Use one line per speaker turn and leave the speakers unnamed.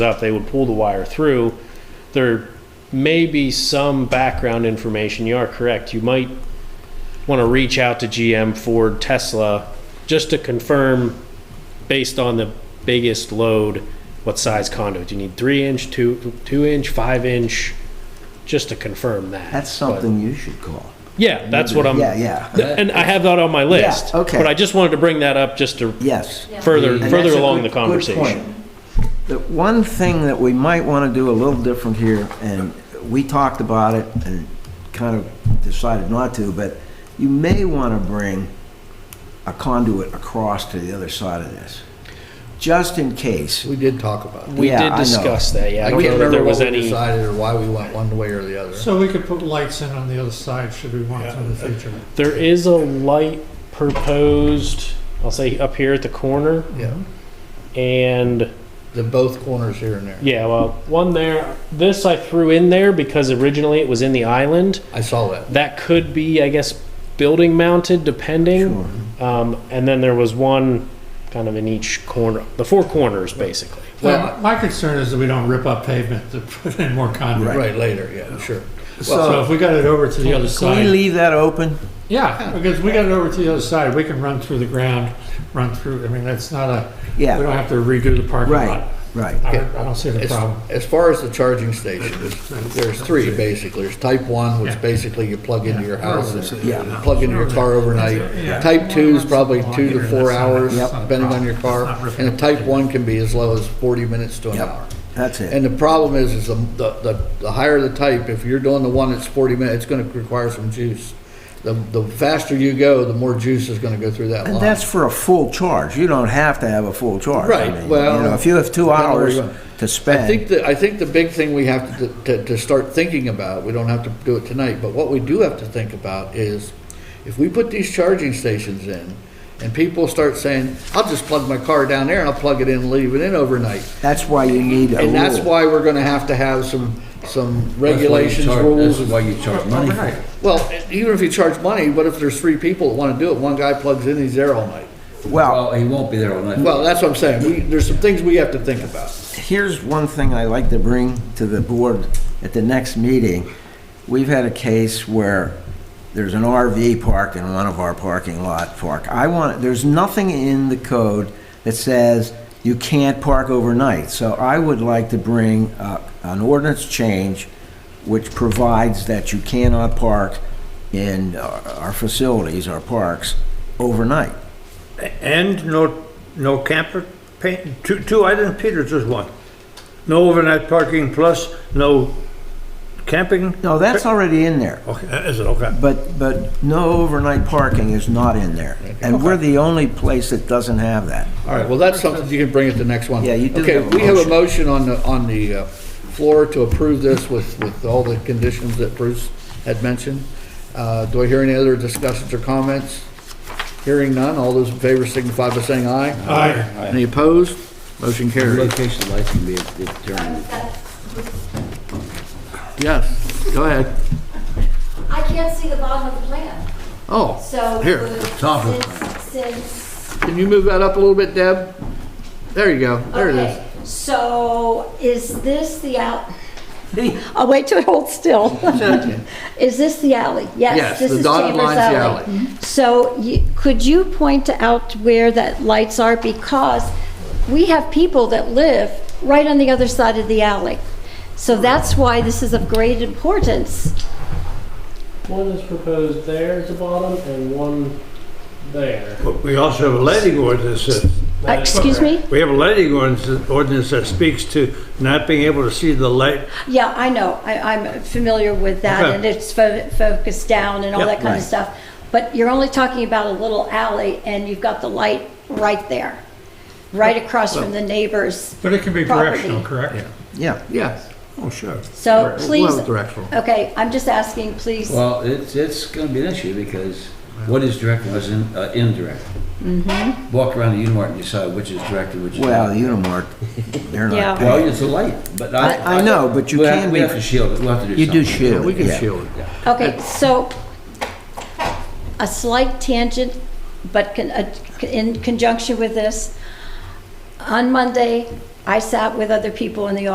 out, they would pull the wire through. There may be some background information. You are correct. You might want to reach out to GM, Ford, Tesla, just to confirm, based on the biggest load, what size conduit. Do you need three inch, two, two inch, five inch? Just to confirm that.
That's something you should call.
But- Yeah, that's what I'm.
Yeah, yeah,
And I have that on my list.
okay.
But I just wanted to bring that up just to
yes.
further,
And
further
that's a
along
good-
the
good
conversation.
point. The one thing that we might want to do a little different here, and we talked about it and kind of decided not to, but you may want to bring a conduit across to the other side of this, just in case.
We did talk about it.
We
Yeah, I
did
know.
discuss that, yeah. I
I
don't
can't
know that there
remember what
was
we
any,
decided or why we went one way or the other.
So we could put lights in on the other side should we want to in the future.
there is a light proposed, I'll say up here at the corner,
Yeah,
and,
the both corners here and there.
yeah, well, one there, this I threw in there because originally it was in the island.
I saw that.
That could be, I guess, building mounted depending.
Sure.
Um, and then there was one kind of in each corner, the four corners, basically.
Well,
My concern is that we don't rip up pavement to put in more
I-
conduit.
right later, yeah, sure.
So
So,
if we got it over to the other
can we
side,
leave that open?
yeah, because we got it over to the other side, we can run through the ground, run through, I mean, that's not a, we
Yeah.
don't have to redo the parking
Right,
lot.
right.
I don't- I don't see the
As,
problem.
as far as the charging stations, there's three basically. There's type one, which
Yeah.
basically you plug into your house and
Yeah.
plug into your car
Yeah.
overnight. Type two is probably two to four hours,
Yep.
depending on your car.
It's not ripping
And a
up
type
the-
one can be as low as forty minutes to an
Yep.
hour.
That's it.
And the problem is, is the, the, the- the higher the type, if you're doing the one that's forty minutes, it's gonna require some juice. The, the faster you go, the more juice is gonna go through that
And
line.
that's for a full charge. You don't have to have a full charge. I
Right,
mean,
well,
You know, if you have two
depending on where
hours
you go.
to
I think
spend,
that, I think the big thing we have to, to, to start thinking about, we don't have to do it tonight, but what we do have to think about is, if we put these charging stations in, and people start saying, I'll just plug my car down there and I'll plug it in and leave it in overnight.
that's why you need a rule.
And that's why we're gonna have to have some, some
That's why you
regulations,
charge-
rules.
That's why you charge money for
Right.
it.
Well, even if you charge money, what if there's three people that want to do it? One guy plugs in, he's there all night.
Well,
Oh. Well, he won't be there all night.
Well, that's what I'm saying. We, there's some things we have to think about.
here's one thing I like to bring to the board at the next meeting. We've had a case where there's an RV park in one of our parking lot park. I want, there's nothing in the code that says you can't park overnight. So I would like to bring uh, an ordinance change which provides that you cannot park in our our facilities, our parks, overnight.
And no, no camper paint, two, two items, Peter, just one. No overnight parking plus no camping?
No, that's already in there.
Okay, is it, okay.
But, but no overnight parking is not in there. And we're the only place that doesn't have that.
All right, well, that's something you can bring at the next one.
Yeah, you do
Okay,
have a
we have a motion on the, on the uh, floor to approve this with, with all the conditions that Bruce had mentioned. Uh, Do I hear any other discussions or comments? Hearing none, all those in favor signify by saying aye.
Aye.
Any opposed? Motion
The
carries.
Location lights can be determined.
Yes, go ahead.
I can't see the bottom of the plan,
Oh,
so.
Here,
the-
top of the
Since, since-
can you move that up a little bit, Deb? There you go, there it is.
okay, so is this the out? I'll wait till it holds still. Is this the alley?
Yes,
Yes, this
the
is
dotted
Chambers
line's the alley. Mm-hmm.
Alley. So you- could you point out where that lights are? Because we have people that live right on the other side of the alley. So that's why this is of great importance.
One is proposed there at the bottom and one there.
But we also have a lighting ordinance that,
Uh, Excuse me?
we have a lighting ordinance, ordinance that speaks to not being able to see the light.
Yeah, I know. I, I'm familiar with that,
Okay.
and it's fo- focused down and all
Yep.
that kind
Right.
of stuff. But you're only talking about a little alley, and you've got the light right there, right across from the neighbor's.
But it can be directional,
Property.
correct?
Yeah.
Yeah.
Oh, sure.
So
Well,
please,
directional.
okay, I'm just asking, please.
Well, it's, it's going to be an issue because what is direct and what's in- uh, indirect? Walk around the Unimart and decide which is direct and which is.
Well,
not.
Unimart, they're
Yeah.
not
Well,
paying.
it's a light, but
I,
I.
I know, but you
we have-
can
We
be,
have to shield it, we'll have to do
you
something.
do shield
We
it,
can
yeah.
shield it.
Okay, so a slight tangent, but con- uh, in conjunction with this, on Monday, I sat with other people in the